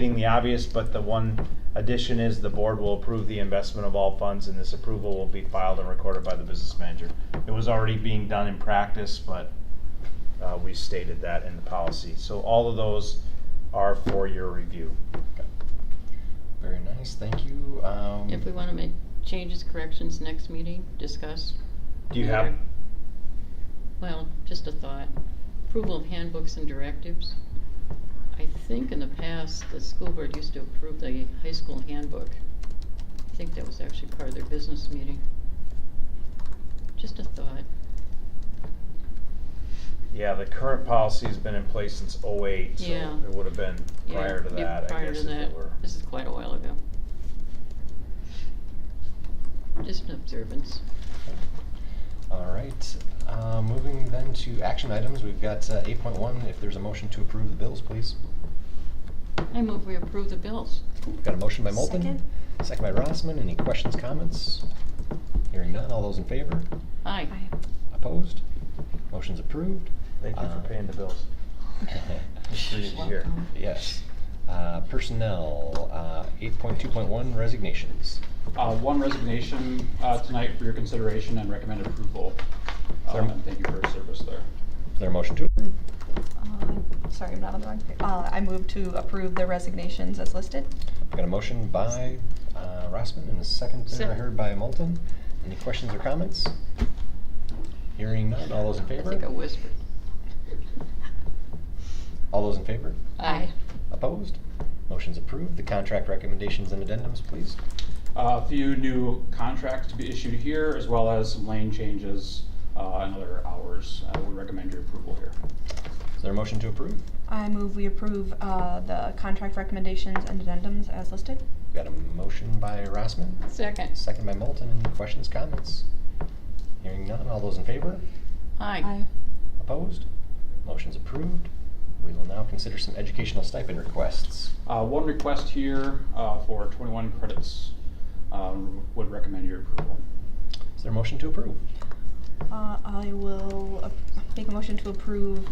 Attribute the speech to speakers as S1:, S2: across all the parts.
S1: stating the obvious, but the one addition is the board will approve the investment of all funds and this approval will be filed and recorded by the business manager. It was already being done in practice, but uh, we stated that in the policy. So all of those are for your review.
S2: Very nice, thank you. Um,
S3: If we wanna make changes, corrections, next meeting, discuss,
S1: Do you have,
S3: well, just a thought. Approval of handbooks and directives. I think in the past, the school board used to approve the high school handbook. I think that was actually part of their business meeting. Just a thought.
S1: yeah, the current policy has been in place since '08, so
S3: Yeah.
S1: it would have been
S3: Yeah,
S1: prior to
S3: yeah,
S1: that, I
S3: prior
S1: guess
S3: to
S1: if
S3: that.
S1: it were.
S3: This is quite a while ago. Just an observance.
S2: All right, uh, moving then to action items, we've got uh, 8.1. If there's a motion to approve the bills, please.
S3: I move we approve the bills.
S2: Got a motion by Moulton.
S4: Second.
S2: Second by Rossman. Any questions, comments? Hearing none. All those in favor?
S3: Aye.
S2: Opposed? Motion's approved.
S1: Thank you for
S2: Uh,
S1: paying the bills. Appreciate you here.
S3: Welcome.
S2: Yes. Uh, Personnel, uh, 8.2.1 resignations.
S5: Uh, One resignation uh, tonight for your consideration and recommended approval.
S2: Sir.
S5: Um, And thank you for your service there.
S2: Is there a motion to approve?
S4: Uh, Sorry, I'm not on the wrong page. Uh, I move to approve the resignations as listed.
S2: Got a motion by uh, Rossman and a second there
S3: Second.
S2: heard by Moulton. Any questions or comments? Hearing none, all those in
S3: I think I
S2: favor?
S3: whispered.
S2: All those in favor?
S3: Aye.
S2: Opposed? Motion's approved. The contract recommendations and addendums, please.
S5: Uh, A few new contracts to be issued here, as well as some lane changes uh, and other hours. Uh, We recommend your approval here.
S2: Is there a motion to approve?
S4: I move we approve uh, the contract recommendations and addendums as listed.
S2: Got a motion by Rossman,
S3: Second.
S2: second by Moulton. Any questions, comments? Hearing none, all those in favor?
S3: Aye.
S2: Opposed? Motion's approved. We will now consider some educational stipend requests.
S5: Uh, One request here uh, for 21 credits. um, Would recommend your approval.
S2: Is there a motion to approve?
S4: Uh, I will ap- make a motion to approve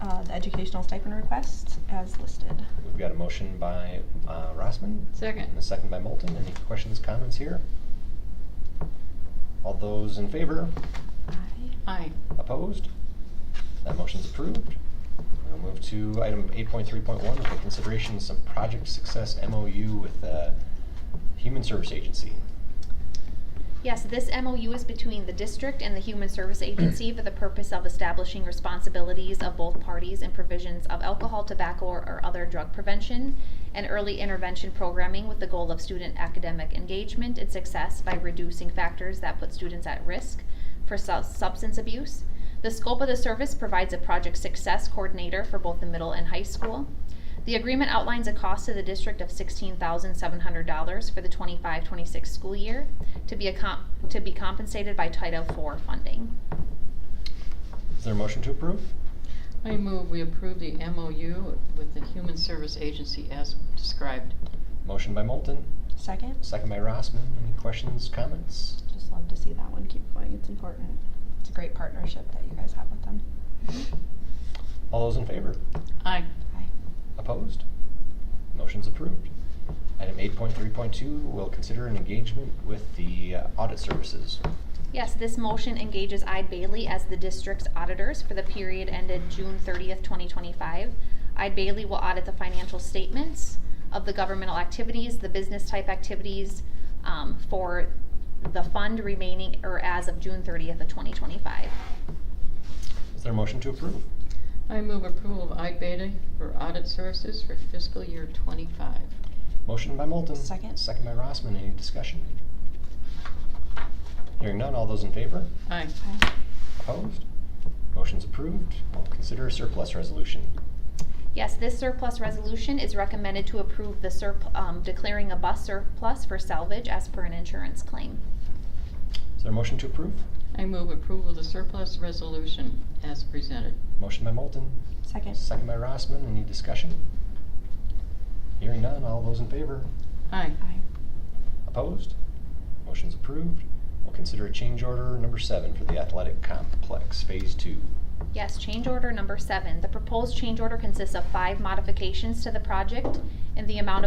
S4: uh, the educational stipend requests as listed.
S2: We've got a motion by uh, Rossman, And a
S3: Second.
S2: second by Moulton. Any questions, comments here? All those in favor?
S4: Aye.
S3: Aye.
S2: Opposed? That motion's approved. We'll move to item 8.3.1, with the consideration of some project success MOU with the Human Service Agency.
S6: Yes, this MOU is between the district and the Human Service Agency for the purpose of establishing responsibilities of both parties and provisions of alcohol, tobacco, or- or other drug prevention and early intervention programming with the goal of student academic engagement and success by reducing factors that put students at risk for su- substance abuse. The scope of the service provides a project success coordinator for both the middle and high school. The agreement outlines a cost to the district of sixteen thousand seven hundred dollars for the 25-26 school year to be a comp- to be compensated by Title IV funding.
S2: Is there a motion to approve?
S3: I move we approve the MOU with the Human Service Agency as described.
S2: Motion by Moulton,
S4: Second.
S2: second by Rossman. Any questions, comments?
S4: Just love to see that one keep going. It's important. It's a great partnership that you guys have with them.
S2: All those in favor?
S3: Aye.
S4: Aye.
S2: Opposed? Motion's approved. Item 8.3.2, we'll consider an engagement with the uh, audit services.
S6: Yes, this motion engages Ide Bailey as the district's auditors for the period ended June thirtieth, twenty twenty-five. Ide Bailey will audit the financial statements of the governmental activities, the business type activities, um, for the fund remaining, or as of June thirtieth of twenty twenty-five.
S2: Is there a motion to approve?
S3: I move approval of iBeta for audit services for fiscal year twenty-five.
S2: Motion by Moulton.
S4: Second.
S2: Second by Rossman. Any discussion? Hearing none, all those in favor?
S3: Aye.
S4: Aye.
S2: Opposed? Motion's approved. We'll consider a surplus resolution.
S6: Yes, this surplus resolution is recommended to approve the surp, um, declaring a bus surplus for salvage as per an insurance claim.
S2: Is there a motion to approve?
S3: I move approval of the surplus resolution as presented.
S2: Motion by Moulton.
S4: Second.
S2: Second by Rossman. Any discussion? Hearing none, all those in favor?
S3: Aye.
S4: Aye.
S2: Opposed? Motion's approved. We'll consider a change order number seven for the athletic complex, phase two.
S6: Yes, change order number seven. The proposed change order consists of five modifications to the project in the amount of